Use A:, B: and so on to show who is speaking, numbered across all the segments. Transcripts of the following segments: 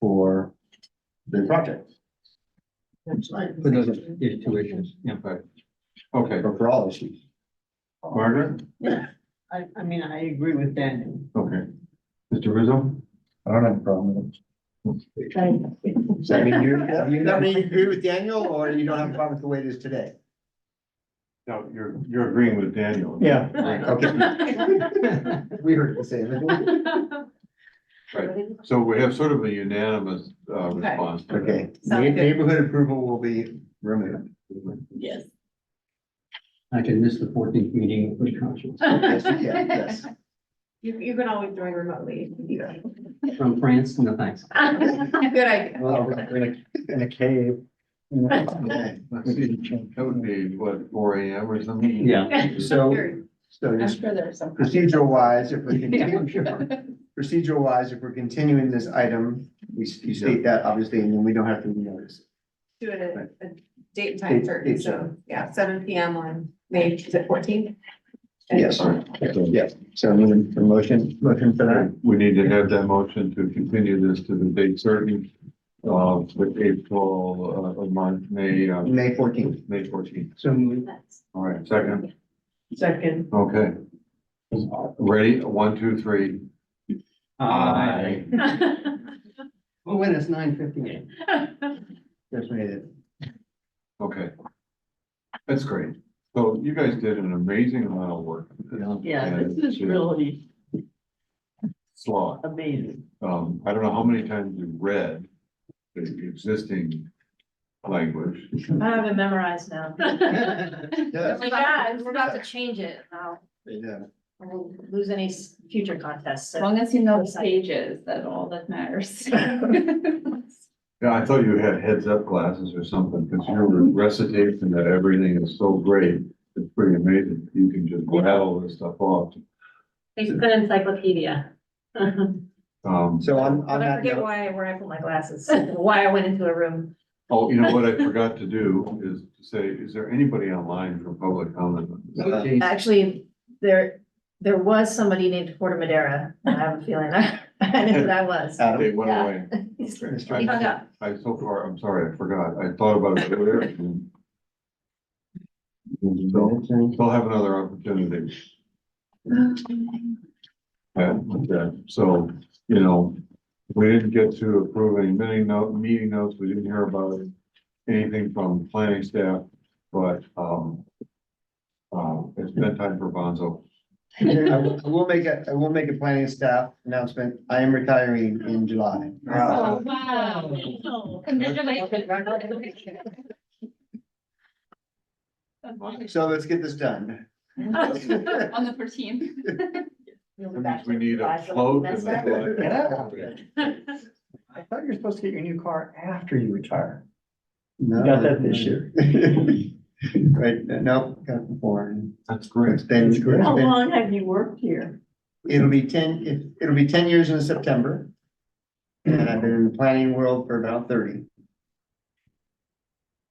A: for the project,
B: For those two issues, yeah, but, okay,
A: or for all issues.
B: Margaret,
C: Yeah, I, I mean, I agree with Daniel.
B: okay. Mr. Rizzo?
A: I don't have a problem with it. So I mean, you, you, I mean, you agree with Daniel, or you don't have a problem with the way it is today?
B: No, you're, you're agreeing with Daniel.
A: Yeah.
B: Right,
A: Okay. We heard the same.
B: so we have sort of a unanimous, uh,
C: Okay.
B: response. to that.
A: Okay,
C: Sounds good.
A: neighborhood approval will be removed.
C: Yes.
D: I can miss the fourteenth meeting with good conscience.
A: Yes, you can, yes.
E: You, you can always join remotely.
A: Yeah.
D: From France, no thanks.
E: Good idea.
A: Well, in a, in a cave.
B: That would be, what, four AM or something?
D: Yeah,
A: So,
E: Sure.
A: so
E: I'm
A: just
E: sure there's some.
A: procedural wise, if we
D: Yeah,
A: continue,
D: sure.
A: procedural wise, if we're continuing this item, we s- you state that obviously, and then we don't have to renotice.
E: Do it at a date and time
A: Date-
E: certain,
A: date
E: so, yeah, seven P M on May, is it fourteenth?
A: Yes, yes. So I need a motion, motion for that.
B: We need to have that motion to continue this to the date certain, uh, with April, uh, of month, May, uh,
A: May fourteenth.
B: May fourteenth.
D: So moved.
B: All right, second,
C: Second,
B: okay. Ready, one, two, three.
D: Aye. Oh, and it's nine fifty-eight.
A: Just made it.
B: Okay. That's great. So you guys did an amazing amount of work.
C: yeah, this is really
B: Slot.
C: amazing.
B: Um, I don't know how many times you read the existing language.
F: I have it memorized now.
A: Yeah,
F: We're about, we're about to change it. and I'll
A: yeah.
F: I won't lose any s- future contests. so-
G: As long as you know the stages, that's all that matters.
B: Yeah, I thought you had heads up glasses or something, because your recitation that everything is so great, it's pretty amazing. You can just rattle this stuff off.
F: It's an encyclopedia.
B: Um,
A: So on, on
F: But I
A: that
F: forget
A: note,
F: why, where I put my glasses, why I went into a room.
B: oh, you know what I forgot to do is to say, is there anybody online for public comment? on this?
D: Oh,
A: Uh,
D: geez.
F: Actually, there, there was somebody named Porter Madera. I have a feeling I, I know who that was.
A: Adam,
B: They went
F: Yeah.
B: away.
F: He's-
A: Mr.
F: Uh, He hung up.
B: I so far, I'm sorry, I forgot. I thought about it earlier. and
A: Mr.
B: They'll have another opportunity. Yeah, okay. so, you know, we didn't get to approving many note, meeting notes. We didn't hear about anything from planning staff, but, um, um, it's bedtime for Bonzo.
A: I will- I will make a, I will make a planning staff announcement. I am retiring in July.
G: Oh.
B: Wow.
G: wow. Congratulations.
A: So let's get this done.
G: On the fourteenth.
F: You'll be
B: That means
F: back to
B: we need a
F: July, so
B: float.
F: that's
B: and
F: that.
B: a-
H: I thought you were supposed to get your new car after you retire.
A: No.
H: Got that this year.
A: Right, no, got before.
B: That's
A: It's
B: great.
A: been, it's
C: How
A: been,
C: long have you worked here?
A: it'll be ten, it- it'll be ten years in September. And I've been in the planning world for about thirty.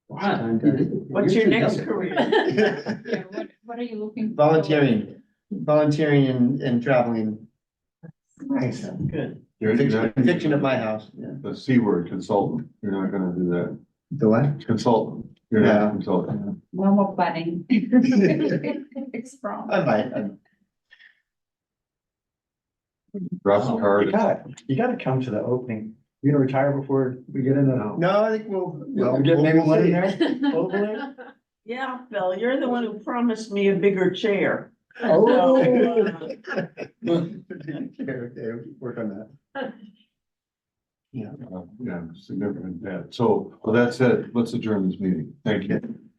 D: Wow.
C: What's your next career?
G: Yeah, what, what are you looking? for?
A: Volunteering, volunteering and, and traveling.
C: Nice. Good.
B: You're- you're not-
A: Fiction of my house, yeah.
B: The C word consultant. You're not gonna do that.
A: The what?
B: Consultant, you're not
A: Yeah.
B: a consultant.
G: No more planning. It's from.
A: I might, I-
B: Drop the
H: You
B: card.
H: gotta, you gotta come to the opening. You gonna retire before we get in the.
A: no, I think we'll.
H: We'll get maybe one in there. Hopefully.
C: Yeah, Phil, you're the one who promised me a bigger chair. So,
H: Oh.
C: uh,
A: Okay, Work on that.
B: Uh, Yeah, significant, yeah. So, with that said, let's adjourn this meeting. Thank you.